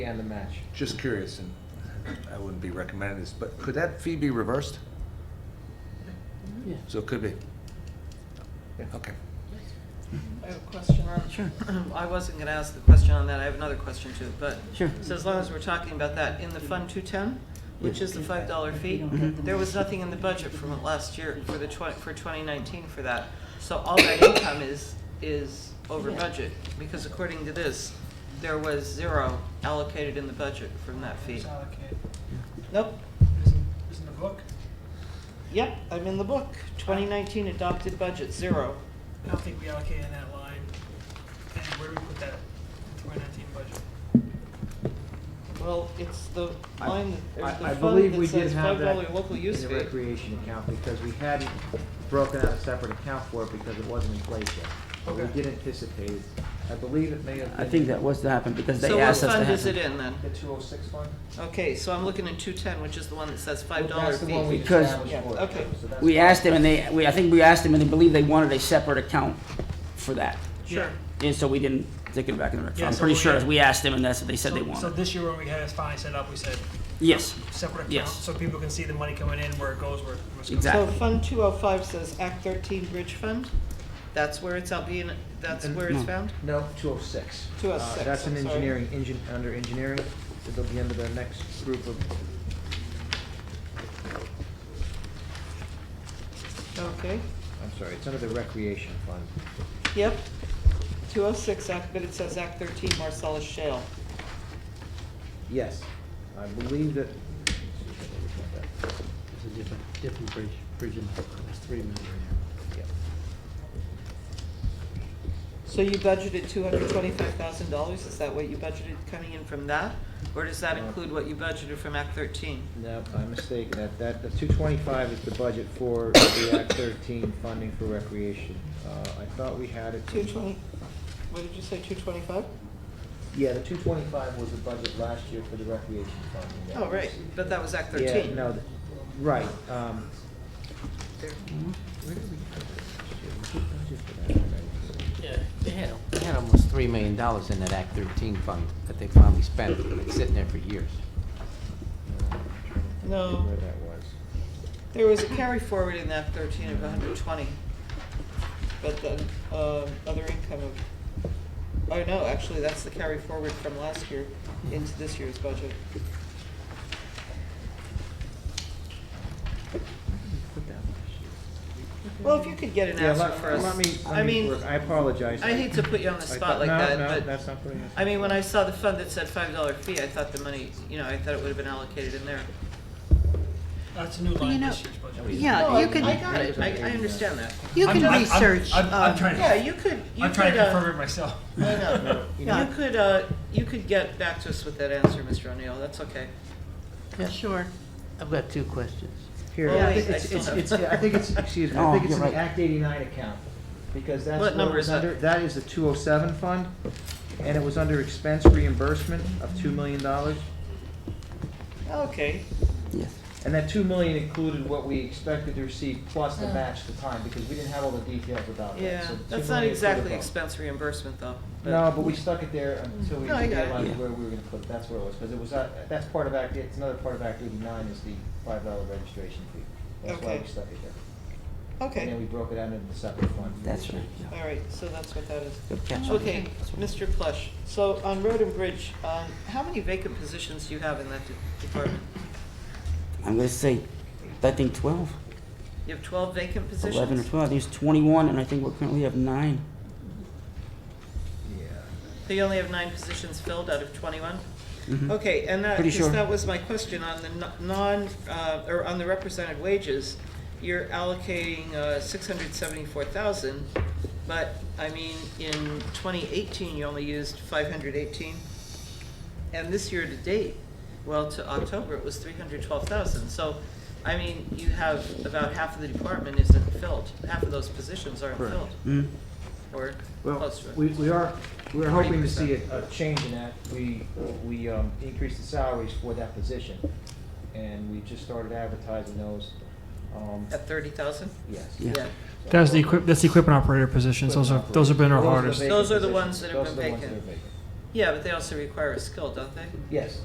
and the match. Just curious, and I wouldn't be recommending this, but could that fee be reversed? Yeah. So it could be. Yeah. Okay. I have a question on. Sure. I wasn't gonna ask the question on that, I have another question too, but. Sure. So as long as we're talking about that, in the Fund two-ten, which is the five dollar fee, there was nothing in the budget from it last year for the twenty, for twenty nineteen for that. So all that income is, is over budget, because according to this, there was zero allocated in the budget from that fee. It's allocated. Nope, Isn't, isn't the book, yep, I'm in the book, twenty nineteen adopted budget, zero. I don't think we allocated that line, and where do we put that in twenty nineteen budget? Well, it's the I- line, that- I, I the fund believe we that did says have five that dollar local in use the fee. recreation account because we hadn't broken out a separate account for it because it wasn't in place yet. But we Okay. did anticipate, it. I believe it may have I been. think that was to happen because So they what asked us to fund is have it it. in then? The two oh six fund? Okay, so I'm looking at two ten, which is the one that says five Well, dollar That's the one we fee. Because- established Yeah, for it. okay. So that's- We asked them and they, we, I think we asked them and they believe they wanted a separate account for that. Sure. And so we didn't take it back in the rec. Yeah, I'm so pretty we- sure we asked them and that's what they said So- they So wanted. this year when we had it finally set up, we said Yes, separate account, Yes. so people can see the money coming in, where it goes, where it must go. Exact- So Exactly. Fund two oh five says Act thirteen Bridge Fund, that's where it's, I'll be in, that's And- where it's Uh, no. found? No, two oh six. 206, That's an I'm sorry. engineering, engine, under engineering, it'll be under their next group of, Okay, I'm sorry, it's under the recreation fund. yep, two oh six Act, but it says Act thirteen Marcellus Shale. Yes, I believe that. It's a different, different bridge, bridge and, there's three million Yep. So you budgeted two hundred twenty-five thousand dollars, is that what you budgeted coming in from that? Or does that No. include what you budgeted from Act thirteen? No, I'm mistaken, that, that, the two twenty-five is the budget for the Act thirteen funding for recreation. Uh, I thought we had it. Two twenty, what did you say, two twenty-five? Yeah, the two twenty-five was the budget last year for the recreation funding. that Oh, we right, received. but that was Act Yeah, thirteen. no, th- right, um. Where did we put that? We put budget for that already. Yeah, they had, they had almost three million dollars in that Act thirteen fund that they finally spent, and it's sitting there for years. No, I'm trying to think No. Where that was. There was a carry forward in that thirteen of hundred twenty, but the, uh, other income of, oh, no, actually, that's the carry forward from last year into this year's budget. Put that last year. Well, if you could get an Yeah, answer let, for us. let me, I let me, mean, work. I apologize. I hate to put you on the I spot thought- like no, that, no, but. that's not putting us- I mean, when I saw the fund that said five dollar fee, I thought the money, you know, I thought it would have been allocated in there. That's a new you line know- this year's Oh, budget. Yeah, you I can, got it, I, I understand that. you I'm- can I'm- I'm- research. I'm, I'm um, trying Yeah, to, you could, you I'm trying could, to uh, confirm it myself. I know. you You could, uh, you could get back to us with that answer, Mr. O'Neill, that's okay. yeah, Sure. I've got two questions. Here, Well, I wait, think Oh, I it's, still it's, have- it's- I think it's, excuse me, I Oh, think it's you're in the right. Act eighty-nine account, because that's. What number it was is that? under- That is the two oh seven fund, and it was under expense reimbursement of two million dollars. Okay, yes. And that two million included what we expected to receive plus the match at the time, because we didn't have all the details about that. Oh. yeah, So two that's not million is sort of exactly a- expense reimbursement, though. but- No, but we stuck it there until we No, I got it. realized Yeah. where we were gonna put it, that's where it was, because it was, not- that's part of Act, it's another part of Act eighty-nine is the five dollar registration fee. That's why Okay. we stuck it there. And then Okay, we broke it out into the separate fund. for That's this right. year. yeah. all right, so that's what that is. Good catch. Okay, That's right. Mr. Plush, so on Road and Bridge, um, how many vacant positions do you have in that de- department? I'm gonna say, I think 12, You have twelve vacant 11 positions? or twelve. There's twenty-one and I think we currently have nine. So you only have nine positions filled out of twenty-one? Mhm. Okay, and that, Pretty because sure. that was my question on the no- non, uh, or on the represented wages, you're allocating, uh, six hundred seventy-four thousand, but, I mean, in twenty eighteen, you only used five hundred eighteen. And this year to date, well, to October, it was three hundred twelve thousand, so, I mean, you have about half of the department isn't filled, half of those positions aren't Correct. filled, Mhm. or Well, close to it. we, we are, we're hoping to see a, a change in that. We, we, um, increased the salaries for that position, and we just started advertising those, um, At thirty thousand? yes. Yeah. That's the equip, that's the equipment operator positions, Those are- those have been our hardest. Those are the ones that have been Those are the ones that are vacant. vacant. Yeah, but they also require a skill, don't they? Yes.